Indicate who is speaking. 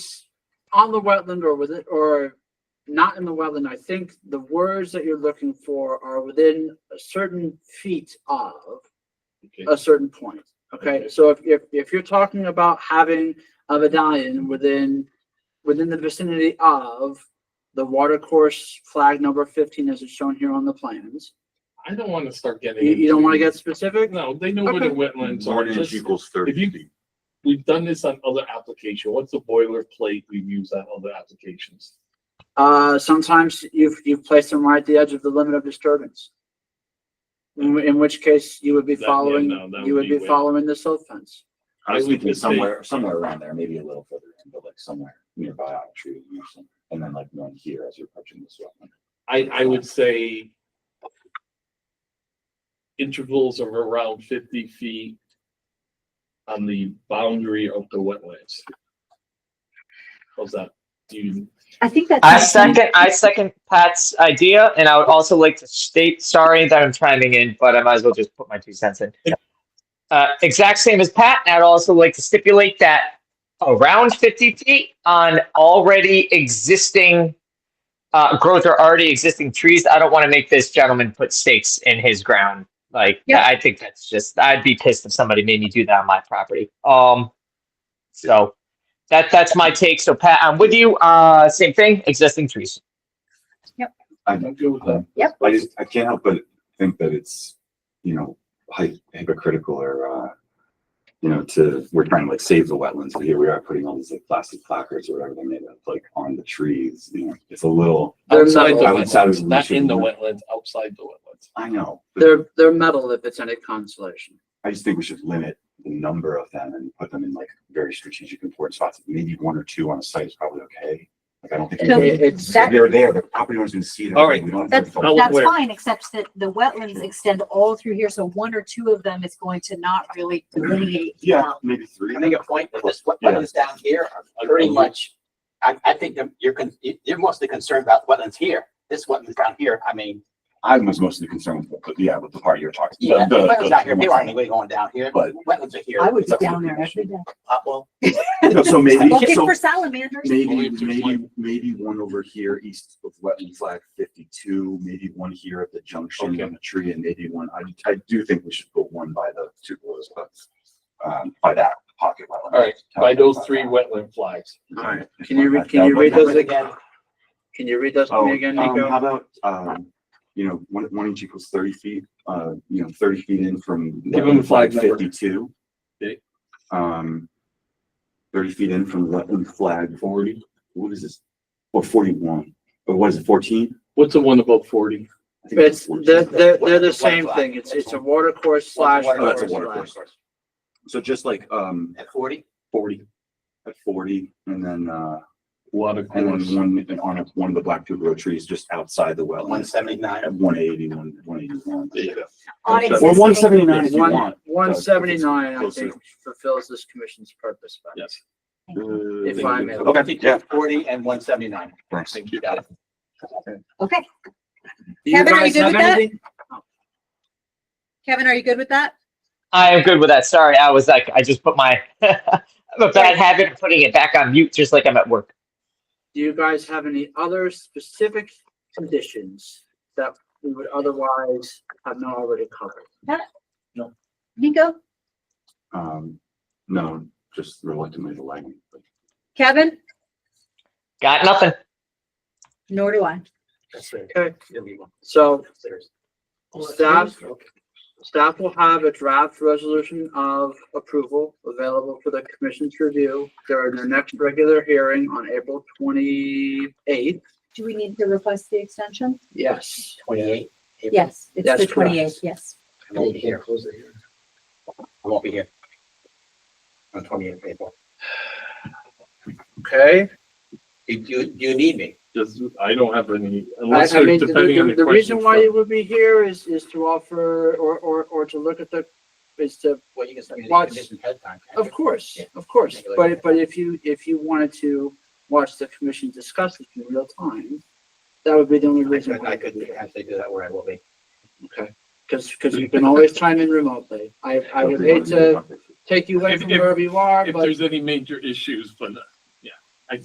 Speaker 1: on the wetland or within, or not in the wetland, I think the words that you're looking for are within a certain feet of
Speaker 2: Okay.
Speaker 1: a certain point. Okay,
Speaker 2: Okay.
Speaker 1: so if, if, if you're talking about having a medallion within, within the vicinity of the watercourse flag number fifteen as it's shown here on the plans,
Speaker 2: I don't want to start getting.
Speaker 1: you, you don't want to
Speaker 2: into-
Speaker 1: get specific?
Speaker 2: No, they know where the wetlands are.
Speaker 3: One inch
Speaker 2: Just-
Speaker 3: equals
Speaker 2: if you-
Speaker 3: thirty feet.
Speaker 2: We've done this on other application. What's the boilerplate we've used on other applications?
Speaker 1: Uh, sometimes you've, you've placed them right at the edge of the limit of disturbance. In, whi- in which case you would be
Speaker 2: That- yeah,
Speaker 1: following,
Speaker 2: no, that
Speaker 1: you
Speaker 2: would
Speaker 1: would
Speaker 2: be
Speaker 1: be
Speaker 2: way-
Speaker 1: following the silt fence.
Speaker 3: I was
Speaker 2: I would
Speaker 3: thinking
Speaker 2: just say-
Speaker 3: somewhere, somewhere around there, maybe a little further in, but like somewhere nearby on a tree or something. And then like one here as you're approaching this wetland.
Speaker 2: I, I would say intervals of around fifty feet on the boundary of the wetlands. How's that? Do you,
Speaker 4: I think that's.
Speaker 5: I second, I second Pat's idea, and I would also like to state, sorry that I'm chiming in, but I might as well just put my two cents in. Uh, exact same as Pat, and I'd also like to stipulate that around fifty feet on already existing uh, growth or already existing trees, I don't want to make this gentleman put stakes in his ground. Like,
Speaker 4: Yeah.
Speaker 5: I think that's just, I'd be pissed if somebody made me do that on my property. Um, so that, that's my take. So Pat, I'm with you. Uh, same thing, existing trees.
Speaker 2: I'm good with
Speaker 1: Um,
Speaker 2: that.
Speaker 4: Yep.
Speaker 3: I just, I can't help but think that it's, you know, hy- hypocritical or, uh, you know, to, we're trying to like save the wetlands, but here we are putting all these like plastic placards or whatever they're made of, like on the trees, you know, it's a little,
Speaker 1: They're
Speaker 2: Outside the
Speaker 1: metal,
Speaker 3: I would say
Speaker 2: wetlands, not in the
Speaker 3: we should-
Speaker 2: wetlands, outside the wetlands.
Speaker 3: I know. but
Speaker 1: they're, they're metal if it's any consolation.
Speaker 3: I just think we should limit the number of them and put them in like very strategic important spots. Maybe one or two on a site is probably okay. Like, I don't think.
Speaker 4: So
Speaker 3: we need-
Speaker 1: It's,
Speaker 4: that-
Speaker 3: If They're there, the property owners can see them.
Speaker 2: All right.
Speaker 3: We don't have
Speaker 4: That's,
Speaker 3: to focus.
Speaker 2: was
Speaker 4: that's
Speaker 2: aware.
Speaker 4: fine, except that the wetlands extend all through here, so one or two of them is going to not really delineate.
Speaker 3: Yeah,
Speaker 4: well.
Speaker 3: maybe three.
Speaker 6: I make a point that this, what,
Speaker 3: Yeah.
Speaker 6: wetlands down here are pretty much, I, I think that you're, con- you- you're mostly concerned about wetlands here. This wetlands down here, I mean,
Speaker 3: I was mostly concerned with, but yeah, with the part you're talking.
Speaker 6: yeah,
Speaker 3: the- the-
Speaker 6: wetlands down here,
Speaker 3: the-
Speaker 6: they aren't anyway going down here,
Speaker 3: But-
Speaker 6: but wetlands are here.
Speaker 4: I would be
Speaker 6: It's up to
Speaker 4: down
Speaker 6: the
Speaker 4: there every day.
Speaker 6: Uh, well,
Speaker 3: No, So maybe,
Speaker 4: Looking
Speaker 3: so
Speaker 4: for salamanders.
Speaker 3: maybe, maybe, maybe one over here east of wetland flag fifty-two, maybe one here at the junction
Speaker 2: Okay.
Speaker 3: on the tree and maybe one, I, I do think we should put one by the two boys, but um, by that pocket wetland.
Speaker 2: All right, by those three wetland flags.
Speaker 3: All right.
Speaker 1: Can you read- can you read
Speaker 6: numbers
Speaker 1: those ag-
Speaker 6: again,
Speaker 1: can you read those to
Speaker 3: Oh,
Speaker 1: me
Speaker 3: um,
Speaker 1: again,
Speaker 3: how
Speaker 1: Nico?
Speaker 3: about, um, you know, one, one inch equals thirty feet, uh, you know, thirty feet in from.
Speaker 2: Give 'em a flag number.
Speaker 3: Fifty-two.
Speaker 2: Okay.
Speaker 3: Um, thirty feet in from wetland flag forty, what is this? Or forty-one, or what is it, fourteen?
Speaker 2: What's the one above forty?
Speaker 3: I think
Speaker 1: It's, they're,
Speaker 3: 14.
Speaker 1: they're, they're the
Speaker 6: Wetland
Speaker 1: same
Speaker 6: flag.
Speaker 1: thing. It's, it's a water course slash.
Speaker 6: water
Speaker 3: Oh, that's a
Speaker 1: forest
Speaker 3: water
Speaker 1: flag.
Speaker 3: course. So just like, um,
Speaker 6: At forty?
Speaker 2: Forty.
Speaker 3: at forty, and then, uh,
Speaker 2: Water
Speaker 3: and
Speaker 2: course.
Speaker 3: then one, and on one of the black tuber trees just outside the
Speaker 6: One
Speaker 3: wetlands.
Speaker 6: seventy-nine.
Speaker 3: At one eighty, one, one eighty-one.
Speaker 2: There you go.
Speaker 4: On
Speaker 3: Or one
Speaker 4: existing-
Speaker 3: seventy-nine if you
Speaker 1: One-
Speaker 3: want.
Speaker 1: One seventy-nine, I
Speaker 3: Close
Speaker 1: think,
Speaker 3: enough.
Speaker 1: fulfills this commission's purpose. but-
Speaker 2: Yes.
Speaker 1: If I may.
Speaker 3: Uh, Okay, yeah,
Speaker 6: Forty and one seventy-nine.
Speaker 3: thanks.
Speaker 6: Thank you. Got it.
Speaker 4: Okay,
Speaker 1: Do you
Speaker 4: Kevin, are
Speaker 1: guys
Speaker 4: you good
Speaker 1: have
Speaker 4: with that?
Speaker 1: anything?
Speaker 4: Kevin, are you good with that?
Speaker 5: I am good with that. Sorry, I was like, I just put my I'm a bad habit of putting it back on mute, just like I'm at work.
Speaker 1: Do you guys have any other specific conditions that we would otherwise have not already covered?
Speaker 4: Nico,
Speaker 3: Um, no, just reluctantly the lighting.
Speaker 4: Kevin,
Speaker 5: Got nothing.
Speaker 4: nor do I.
Speaker 6: That's right.
Speaker 1: Okay,
Speaker 6: You'll be one
Speaker 1: so
Speaker 6: upstairs.
Speaker 1: staff, staff will have a draft resolution of approval available for the commission's review during their next regular hearing on April twenty-eighth.
Speaker 4: Do we need to request the extension?
Speaker 1: Yes.
Speaker 6: Twenty-eight.
Speaker 4: Yes, it's
Speaker 1: That's
Speaker 4: the
Speaker 1: correct.
Speaker 4: twenty-eighth, yes.
Speaker 6: I won't be here. I won't be here. On twenty-eighth April.
Speaker 1: Okay.
Speaker 6: If you, you need me.
Speaker 2: Just, I don't have any,
Speaker 1: I
Speaker 2: unless
Speaker 1: I mean,
Speaker 2: there's
Speaker 1: the,
Speaker 2: depending on
Speaker 1: the,
Speaker 2: the question.
Speaker 1: the reason why you would be here is, is to offer or, or, or to look at the, is to
Speaker 6: Well, you can send me the
Speaker 1: Watch.
Speaker 6: conditions ahead of time. can't
Speaker 1: Of
Speaker 6: you?
Speaker 1: course,
Speaker 6: Yeah.
Speaker 1: of course,
Speaker 6: Take a look at
Speaker 1: but,
Speaker 6: it.
Speaker 1: but if you, if you wanted to watch the commission discuss it in real time, that would be the only
Speaker 6: I
Speaker 1: reason.
Speaker 6: could, I could actually do that where I will be.
Speaker 1: Because, because you can always chime in remotely. I, I would hate to take you away
Speaker 2: If-
Speaker 1: from
Speaker 2: if-
Speaker 1: wherever you are,
Speaker 2: If
Speaker 1: but
Speaker 2: there's any major issues, but